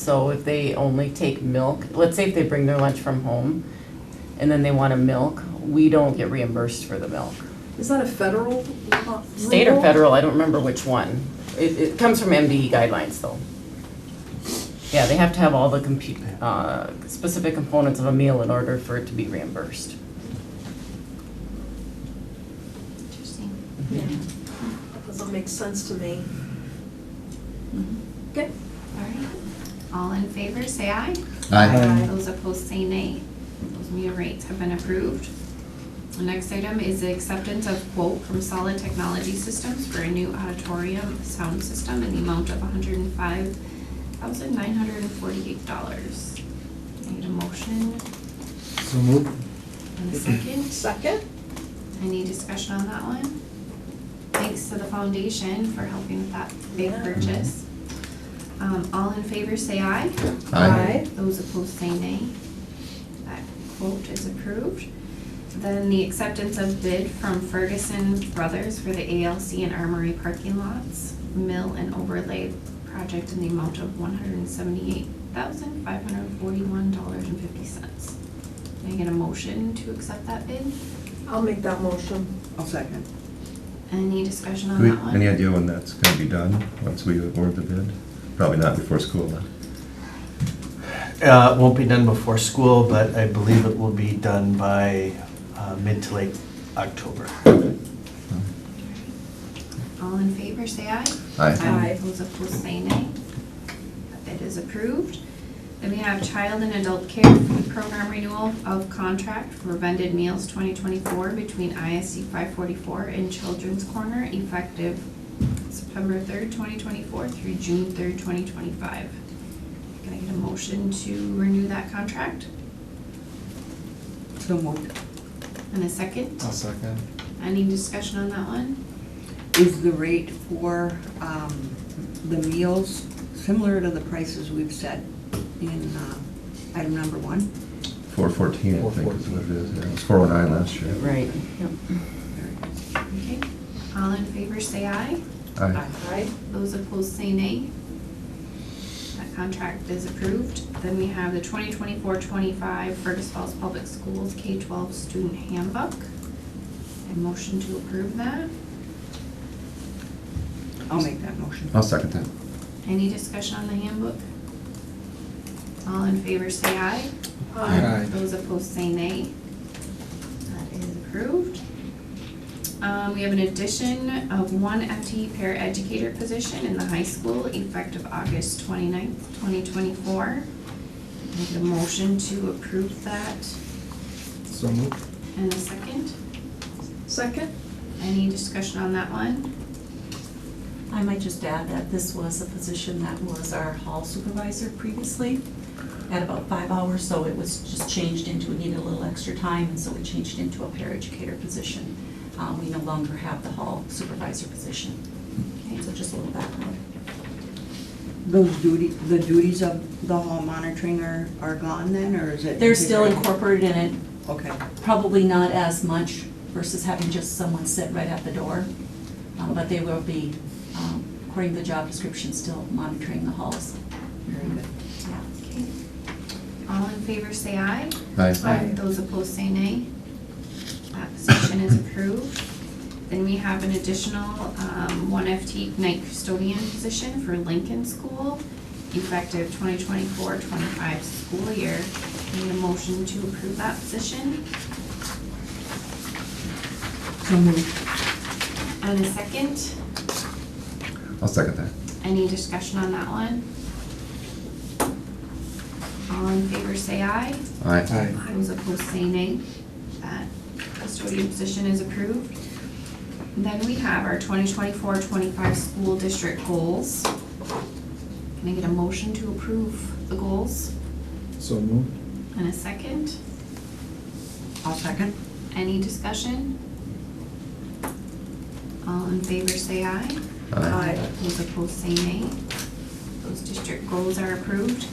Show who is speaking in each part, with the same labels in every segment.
Speaker 1: So if they only take milk, let's say if they bring their lunch from home and then they want a milk, we don't get reimbursed for the milk.
Speaker 2: Is that a federal law?
Speaker 1: State or
Speaker 2: rule?
Speaker 1: federal, I don't remember which one. It, it comes from MDE guidelines though. Yeah, they have to have all the compute, uh, specific components of a meal in order for it to be reimbursed.
Speaker 3: Interesting.
Speaker 2: Yeah. Doesn't make sense to me.
Speaker 1: Mm-hmm.
Speaker 2: Okay.
Speaker 3: All right. All in favor, say aye.
Speaker 4: Aye.
Speaker 3: Those opposed, say nay. Those meal rates have been approved. The next item is the acceptance of quote from Solid Technology Systems for a new auditorium sound system in the amount of hundred and five thousand nine hundred and forty-eight dollars. Need a motion
Speaker 4: So moved.
Speaker 3: and a second?
Speaker 2: Second?
Speaker 3: Any discussion on that one? Thanks to the foundation for helping with that big
Speaker 2: Yeah.
Speaker 3: purchase. Um, all in favor, say aye. Those opposed say nay. That quote is approved. Then the acceptance of bid from Ferguson Brothers for the ALC and Armory parking lots, mill and overlay project in the amount of one hundred and seventy-eight thousand, five hundred and forty-one dollars and fifty cents. Can I get a motion to accept that bid?
Speaker 2: I'll make that motion.
Speaker 5: I'll second.
Speaker 3: Any discussion
Speaker 4: Do
Speaker 3: on
Speaker 4: we,
Speaker 3: that one?
Speaker 4: any idea when that's gonna be done, once we award the bid? Probably not before school, then.
Speaker 6: Uh, it won't be done before school, but I believe it will be done by uh, mid to late October.
Speaker 3: All in favor, say aye.
Speaker 4: Aye.
Speaker 2: Aye.
Speaker 3: Those opposed, say nay. That bid is approved. Then we have child and adult care food program renewal of contract for vended meals twenty twenty-four between ISC five forty-four and Children's Corner effective September third, twenty twenty-four through June third, twenty twenty-five. Can I get a motion to renew that contract?
Speaker 5: So moved.
Speaker 3: And a second?
Speaker 6: I'll second.
Speaker 3: Any discussion on that one?
Speaker 5: Is the rate for um, the meals similar to the prices we've set in uh, item number one?
Speaker 4: Four fourteen, I think is what it is, yeah, it was four one nine last year.
Speaker 1: Right. Yep.
Speaker 3: Okay. All in favor, say aye.
Speaker 4: Aye.
Speaker 2: Aye.
Speaker 3: Those opposed say nay. That contract is approved. Then we have the 2024-25 Fergus Falls Public Schools K twelve student handbook. A motion to approve that.
Speaker 5: I'll make that motion.
Speaker 4: I'll second that.
Speaker 3: Any discussion on the handbook? All in favor say aye.
Speaker 4: Aye.
Speaker 3: Those opposed say nay. That is approved. Um, we have an addition of one FTE paraeducator position in the high school effective August twenty-ninth, twenty twenty-four. Make a motion to approve that
Speaker 6: So moved.
Speaker 3: and a second.
Speaker 2: Second?
Speaker 3: Any discussion on that one?
Speaker 7: I might just add that this was a position that was our hall supervisor previously at about five hours, so it was just changed into, it needed a little extra time, and so we changed into a paraeducator position. Uh, we no longer have the hall supervisor position. Okay, so just a little background.
Speaker 5: Those duty, the duties of the hall monitoring are, are gone then, or is it?
Speaker 7: They're still incorporated in it,
Speaker 5: Okay,
Speaker 7: probably not as much versus having just someone sit right at the door. Um, but they will be, um, according to the job description, still monitoring the halls.
Speaker 5: very good.
Speaker 7: Yeah.
Speaker 3: Okay. All in favor say aye.
Speaker 4: Aye.
Speaker 3: Those opposed say nay. That position is approved. Then we have an additional um, one FT night custodian position for Lincoln School, effective 2024-25 school year. Need a motion to approve that position
Speaker 5: So moved.
Speaker 3: and a second.
Speaker 4: I'll second that.
Speaker 3: Any discussion on that one? All in favor say aye.
Speaker 4: Aye.
Speaker 3: Those opposed say nay. That custodian position is approved. Then we have our 2024-25 school district goals. Can I get a motion to approve the goals
Speaker 6: So moved.
Speaker 3: in a second?
Speaker 5: I'll second.
Speaker 3: Any discussion? All in favor say aye.
Speaker 4: Aye.
Speaker 3: Those opposed say nay. Those district goals are approved.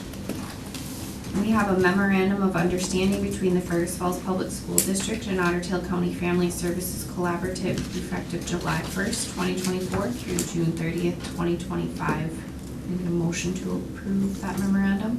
Speaker 3: We have a memorandum of understanding between the Fergus Falls Public School District and Otter Tail County Family Services Collaborative effective July first, twenty twenty-four through June thirtieth, twenty twenty-five. Need a motion to approve that memorandum?